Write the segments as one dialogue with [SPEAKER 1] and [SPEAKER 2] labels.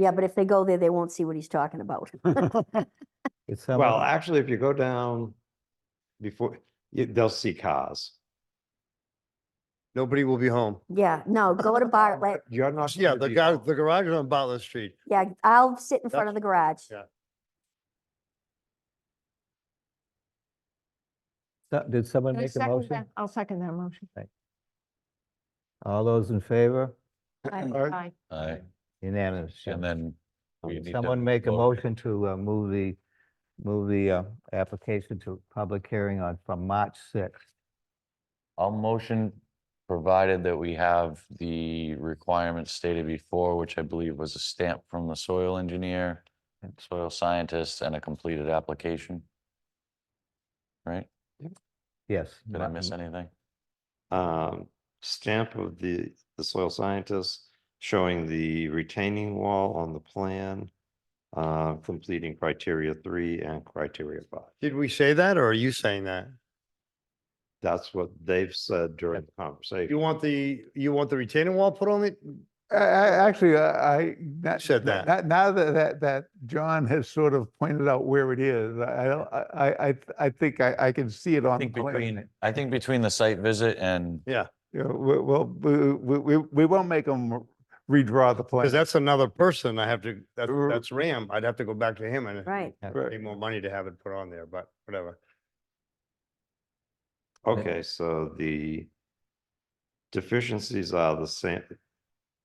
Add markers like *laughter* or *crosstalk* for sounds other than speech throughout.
[SPEAKER 1] Yeah, but if they go there, they won't see what he's talking about.
[SPEAKER 2] It's how
[SPEAKER 3] Well,
[SPEAKER 2] much-
[SPEAKER 3] actually, if you go down before, you- they'll see cars.
[SPEAKER 4] Nobody will be home.
[SPEAKER 1] Yeah, no, go to
[SPEAKER 3] *laughs*
[SPEAKER 1] Bartlett.
[SPEAKER 3] You're not.
[SPEAKER 4] Yeah,
[SPEAKER 3] gonna
[SPEAKER 4] the
[SPEAKER 3] be
[SPEAKER 4] gar
[SPEAKER 3] home.
[SPEAKER 4] the garage is on Bartlett Street.
[SPEAKER 1] Yeah, I'll sit in front of the garage.
[SPEAKER 4] Yeah.
[SPEAKER 2] So- Did someone
[SPEAKER 5] Can I
[SPEAKER 2] make a
[SPEAKER 5] second
[SPEAKER 2] motion?
[SPEAKER 5] that? I'll second that motion.
[SPEAKER 2] All those in favor?
[SPEAKER 3] Alright.
[SPEAKER 5] Aye.
[SPEAKER 6] Aye.
[SPEAKER 2] Unanimous. yeah.
[SPEAKER 6] And then we
[SPEAKER 2] Um,
[SPEAKER 6] need to
[SPEAKER 2] Someone make a
[SPEAKER 6] vote.
[SPEAKER 2] motion to uh, move the, move the uh, application to public hearing on, from March 6th.
[SPEAKER 6] I'll motion, provided that we have the requirements stated before, which I believe was a stamp from the soil engineer, soil scientist, and a completed application. Right?
[SPEAKER 2] Yes.
[SPEAKER 6] Did I
[SPEAKER 2] Ma-
[SPEAKER 6] miss anything?
[SPEAKER 3] Um, stamp of the, the soil scientist showing the retaining wall on the plan. Uh, completing criteria three and criteria five.
[SPEAKER 4] Did we say that or are you saying that?
[SPEAKER 3] That's what they've said during the conversation.
[SPEAKER 4] You want the, you want the retaining wall put on it?
[SPEAKER 7] I- I- Actually, I. I- not-
[SPEAKER 4] Said
[SPEAKER 7] not-
[SPEAKER 4] that.
[SPEAKER 7] not- Now that, that, that John has sort of pointed out where it is, I, I don't- I, I, I- I think I, I can see it
[SPEAKER 6] I
[SPEAKER 7] on the
[SPEAKER 6] think
[SPEAKER 7] plan.
[SPEAKER 6] between, I think between the site visit and,
[SPEAKER 7] Yeah, we- Well, we, we, we- we won't make them redraw the plan.
[SPEAKER 4] Because that's another person I have to, that's,
[SPEAKER 7] R-
[SPEAKER 4] that's Ram. I'd have to go back to him and
[SPEAKER 1] Right.
[SPEAKER 7] Right.
[SPEAKER 4] pay more money to have it put on there, but whatever.
[SPEAKER 3] Okay, so the deficiencies are the same,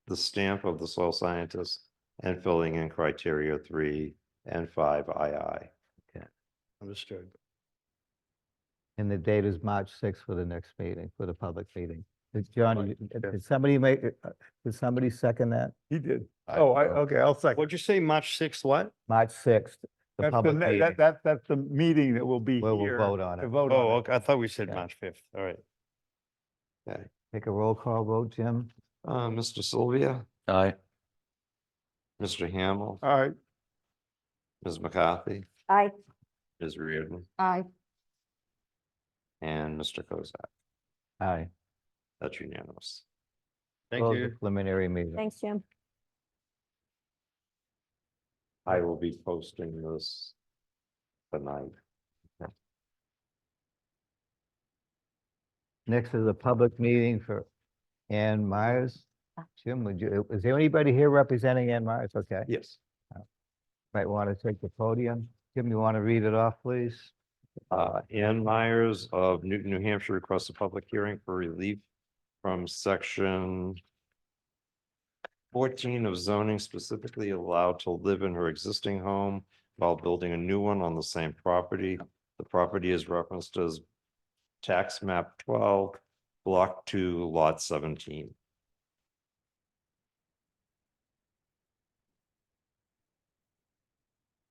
[SPEAKER 3] the stamp of the soil scientist and filling in criteria three and five II.
[SPEAKER 4] Understood.
[SPEAKER 2] And the date is March 6th for the next meeting, for the public meeting. Did John, you- did did somebody make, uh, did somebody second that?
[SPEAKER 7] He did.
[SPEAKER 6] I-
[SPEAKER 7] Oh,
[SPEAKER 2] uh,
[SPEAKER 7] I, okay, I'll second.
[SPEAKER 4] What'd you say, March sixth, what?
[SPEAKER 2] March 6th, the
[SPEAKER 7] That's the,
[SPEAKER 2] public
[SPEAKER 7] ne-
[SPEAKER 2] meeting.
[SPEAKER 7] that, that, that's the meeting that will be
[SPEAKER 2] Where we'll
[SPEAKER 7] here.
[SPEAKER 2] vote on
[SPEAKER 7] to
[SPEAKER 2] it.
[SPEAKER 7] vote on
[SPEAKER 4] Oh,
[SPEAKER 7] it.
[SPEAKER 4] okay, I thought we said
[SPEAKER 2] Yeah.
[SPEAKER 4] March fifth, all right.
[SPEAKER 2] Take a roll call vote, Jim?
[SPEAKER 3] Uh, Mr. Sylvia,
[SPEAKER 6] aye.
[SPEAKER 3] Mr. Hamel,
[SPEAKER 4] Uh,
[SPEAKER 7] All right,
[SPEAKER 3] Ms. McCarthy,
[SPEAKER 1] I,
[SPEAKER 3] Ms. Reardon,
[SPEAKER 5] Aye.
[SPEAKER 3] and Mr. Kozak.
[SPEAKER 2] Aye.
[SPEAKER 3] That's unanimous.
[SPEAKER 4] Thank
[SPEAKER 2] Close the
[SPEAKER 4] you.
[SPEAKER 2] Preliminary meeting.
[SPEAKER 1] thanks, Jim.
[SPEAKER 3] I will be posting this tonight.
[SPEAKER 2] Next is a public meeting for Ann Myers. Jim, would you, is there anybody here representing Ann Myers? Okay.
[SPEAKER 3] Yes.
[SPEAKER 2] Might want to take the podium. Jim, you want to read it off, please?
[SPEAKER 3] Uh, Ann Myers of Newton, New Hampshire requests a public hearing for relief from section fourteen of zoning specifically allowed to live in her existing home while building a new one on the same property. The property is referenced as tax map twelve, block two, lot seventeen.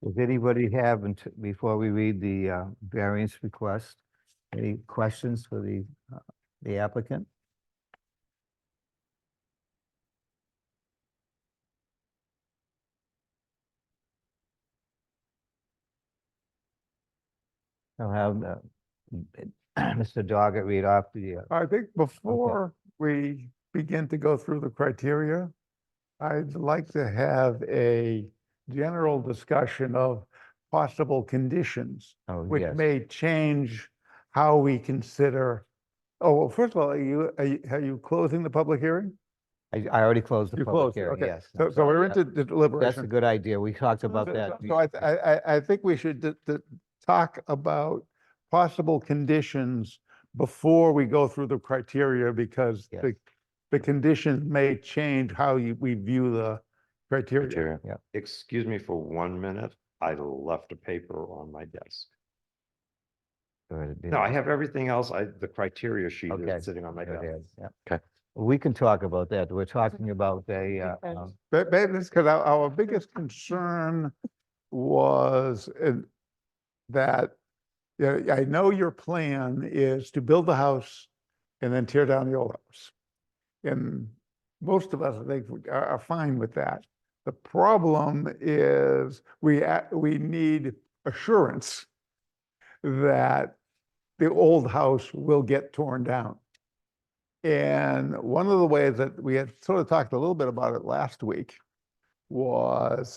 [SPEAKER 2] Does anybody have, unt- before we read the uh, variance request, any questions for the uh, the applicant? I'll have uh, *clears throat* Mr. Doggett read off the, uh,
[SPEAKER 7] I think before we begin to go through the criteria, I'd like to have a general discussion of possible conditions
[SPEAKER 2] oh,
[SPEAKER 7] which
[SPEAKER 2] yes.
[SPEAKER 7] may change how we consider, oh, well, first of all, are you, are you, are you closing the public hearing?
[SPEAKER 2] I I already closed the
[SPEAKER 7] You
[SPEAKER 2] public
[SPEAKER 7] closed it,
[SPEAKER 2] hearing,
[SPEAKER 7] okay.
[SPEAKER 2] yes.
[SPEAKER 7] So,
[SPEAKER 2] I'm
[SPEAKER 7] so
[SPEAKER 2] sorry,
[SPEAKER 7] we're
[SPEAKER 2] yeah.
[SPEAKER 7] into the
[SPEAKER 2] That's a
[SPEAKER 7] deliberation.
[SPEAKER 2] good idea. We talked about
[SPEAKER 7] So-
[SPEAKER 2] that.
[SPEAKER 7] So I, th- I, I- I think we should d- d- talk about possible conditions before we go through the criteria because
[SPEAKER 2] Yes.
[SPEAKER 7] the, the conditions may change how you, we view the criteria.
[SPEAKER 6] Interior.
[SPEAKER 3] Excuse me for one minute. I left a paper on my desk. No, I have everything else. I, the criteria sheet
[SPEAKER 2] Okay.
[SPEAKER 3] is sitting on my desk.
[SPEAKER 2] Okay. We can talk about that. We're talking about a, uh,
[SPEAKER 5] Okay.
[SPEAKER 2] um,
[SPEAKER 7] But, but this, because our, our biggest concern was uh, that, yeah, I know your plan is to build the house and then tear down the old house. And most of us, I think, would- are, are fine with that. The problem is we, a- we need assurance that the old house will get torn down. And one of the ways that we had sort of talked a little bit about it last week was